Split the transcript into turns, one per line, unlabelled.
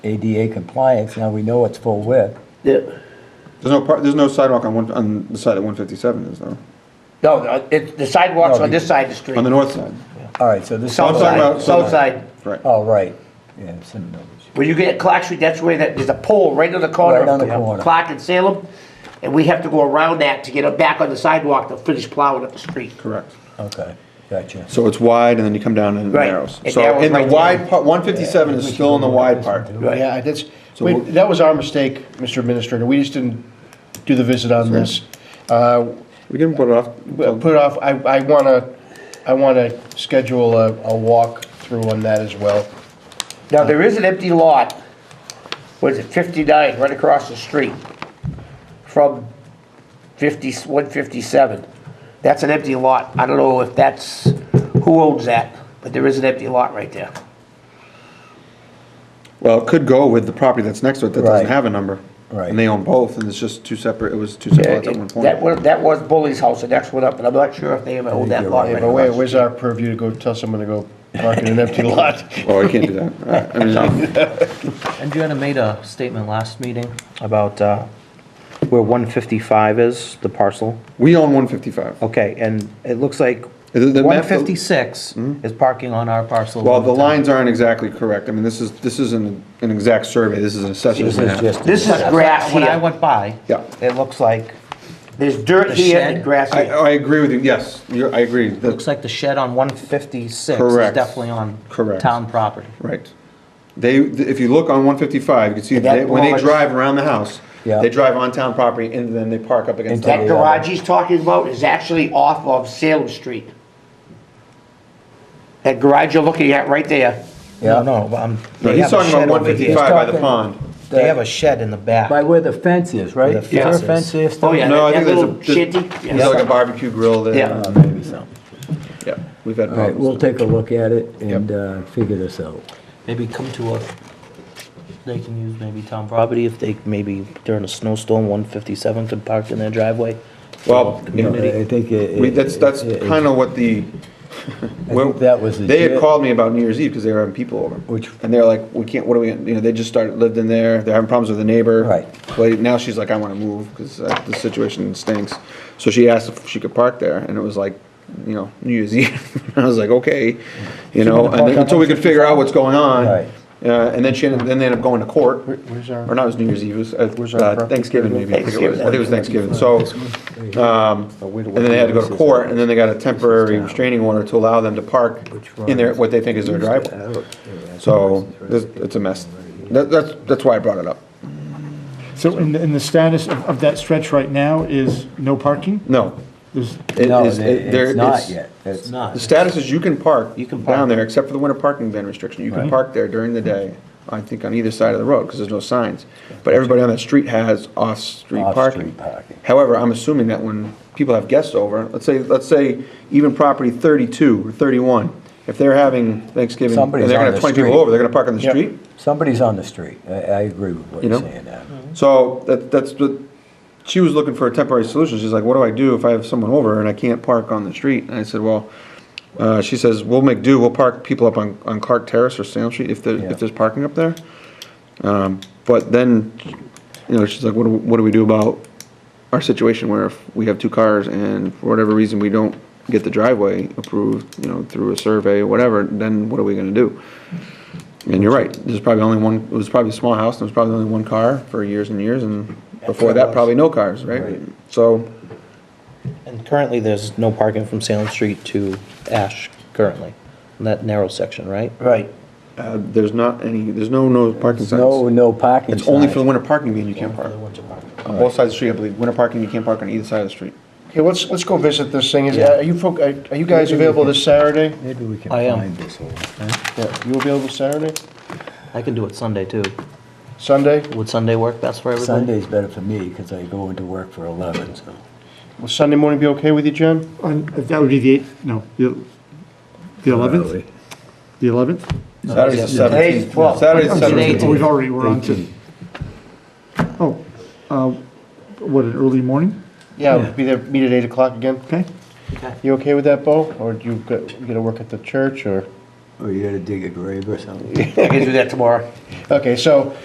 ADA compliance, now we know it's full width.
Yeah.
There's no, par- there's no sidewalk on one, on the side of 157, is there?
No, no, it, the sidewalks
No,
on this side of the street.
On the north side?
All right, so this.
I'm
South side,
talking about
south side.
Right.
Oh, right, yeah, it's in the village.
When you get at Clark Street, that's where that, there's a pole right on the corner.
Right on the
of
corner.
Clark and Salem, and we have to go around that to get it back on the sidewalk to finish plowing up the street.
Correct.
Okay, gotcha.
So it's wide and then you come down and it
Right.
narrows.
It
So
narrows
in the
right
wide
down.
part, 157 is still in the wide part.
Right.
Yeah, that's,
So
wait,
we'll-
that was our mistake, Mr. Administrator. We just didn't do the visit on this. Uh,
We can put it off.
Well,
until-
Put off, I, I want to, I want to schedule a, a walkthrough on that as well.
Now, there is an empty lot, what is it, 59, right across the street from 50, 157. That's an empty lot. I don't know if that's, who owns that, but there is an empty lot right there.
Well, it could go with the property that's next to it that
Right.
doesn't have a number.
Right.
And they own both and it's just two separate, it was two separate lots at one point.
Uh, That was, that was Bully's house, the next one up, and I'm not sure if they ever owned that lot
Hey,
right
but wait,
across.
where's our purview to go tell someone to go park in an empty lot?
Oh, I can't do that. All right. I mean, um,
Adriana made a statement last meeting about uh, where 155 is, the parcel.
We own 155.
Okay, and it looks like
The- the map- Hmm?
156 is parking on our parcel.
Well,
of
the
town.
lines aren't exactly correct. I mean, this is, this isn't an exact survey. This is an assessor's
This is
map.
just.
This is grass
When I
here.
went by,
Yeah.
it looks like,
There's dirt
The
here and
shed.
grass
I, oh,
here.
I agree with you. Yes, you're, I agree. That's-
looks like the shed on 156 is
Correct.
definitely on
Correct.
town property.
Right. They, if you look on 155, you can see
And that
they- when they
garage-
drive around the house,
Yeah.
they drive on town property and then they park up against.
Into
the
That
Yeah.
garage he's talking about is actually off of Salem Street. That garage you're looking at right there.
Yeah.
No, no, but I'm.
No,
they
he's
have a
talking about
shed over here.
155 by the
He's
pond.
talking-
They have a shed in the back.
By where the fence is, right?
Where the
Is there a
fence
fence
is.
there
Oh,
still?
yeah,
No, I
that
think
that
there's a,
little
there's
shanty.
there's like a barbecue grill there.
Yeah.
Uh, Maybe so.
Yeah, we've had
All right,
problems.
we'll take a look at it and uh, figure this out.
Maybe come to a, they can use maybe town property if they, maybe during a snowstorm, 157 could park in their driveway.
Well,
You know, I think it.
we, that's, that's
it- it-
kind of what the. well,
that was the
They had
gist.
called me about New Year's Eve because they were having people over.
Which-
And they're like, we can't, what are we, gonna-" you know, they just started, lived in there, they're having problems with the neighbor.
Right.
But now she's like, I want to move because the situation stinks. So she asked if she could park there and it was like, you know, New Year's Eve. I was like, okay, you know,
park
and then-
on
until we could figure out what's going on.
Right.
Uh, and then she, ended- then they ended up going to court.
where's our-
Or not, it was New Year's Eve, it was,
Where's
uh,
our
uh,
property?
Thanksgiving maybe. I think it was- I think it was Thanksgiving. So, um,
wait a
and then they had to go to
minute.
court, and then they got a temporary restraining order to allow them to park in their, what they think is their driveway. So, it's it's a mess. That, that's, that's why I brought it up.
So, and, and the status of, of that stretch right now is no parking?
No.
There's,
it
No,
is- it-
it-
there-
it's not
it's-
yet.
It's not.
The status is you can park
You can park.
down there, except for the winter parking ban restriction. You can
Right.
park there during the day, I think on either side of the road, because there's no signs. But everybody on that street has off-street parking.
Off-street parking.
However, I'm assuming that when people have guests over, let's say, let's say even property 32 or 31, if they're having Thanksgiving, and
Somebody's
they're
on
gonna
the
have 20 people
street.
over, they're gonna park on the street?
Somebody's on the street. I, I agree with what
You
you're
know?
saying now.
So that, that's what, she was looking for a temporary solution. She's like, what do I do if I have someone over and I can't park on the street? And I said, well, uh, she says, we'll make do, we'll park people up on, on Clark Terrace or Salem Street if there,
Yeah.
if there's parking up there. Um, but then, you know, she's like, what do, what do we do about our situation where if we have two cars and for whatever reason we don't get the driveway approved, you know, through a survey or whatever, then what are we gonna do? And you're right, there's probably only one, it was probably a small house, and there was probably only one car for years and years, and before that, probably no cars, right?
Right.
So,
And currently, there's no parking from Salem Street to Ash currently, in that narrow section, right?
Right.
uh, there's not any, there's no, no parking signs.
No, no parking
It's only for the
signs.
winter parking meeting you can't park. On both sides of the street, I believe, winter parking, you can't park on either side of the street.
Okay, let's, let's go visit this thing. Is, are you, folk- are are you guys available this Saturday?
Maybe we can
I am.
find this whole thing.
Yeah, You available Saturday?
I can do it Sunday, too.
Sunday?
Would Sunday work best for everybody?
Sunday's better for me because I go into work for 11, so.
Will Sunday morning be okay with you, John?
on- that would be the eighth, no, the the eleventh, the eleventh?
Saturday's the
Today's
seventeenth.
12.
Saturday's the
Oh,
seventeenth.
we've already, we're on to, oh, uh, what, an early morning?
Yeah, we'll be there, meet at 8 o'clock again.
Okay,
You okay with that, Bo? Or do you got- you gotta work at the church, or?
Or you gotta dig a grave or something?
I can do that tomorrow.
Okay, so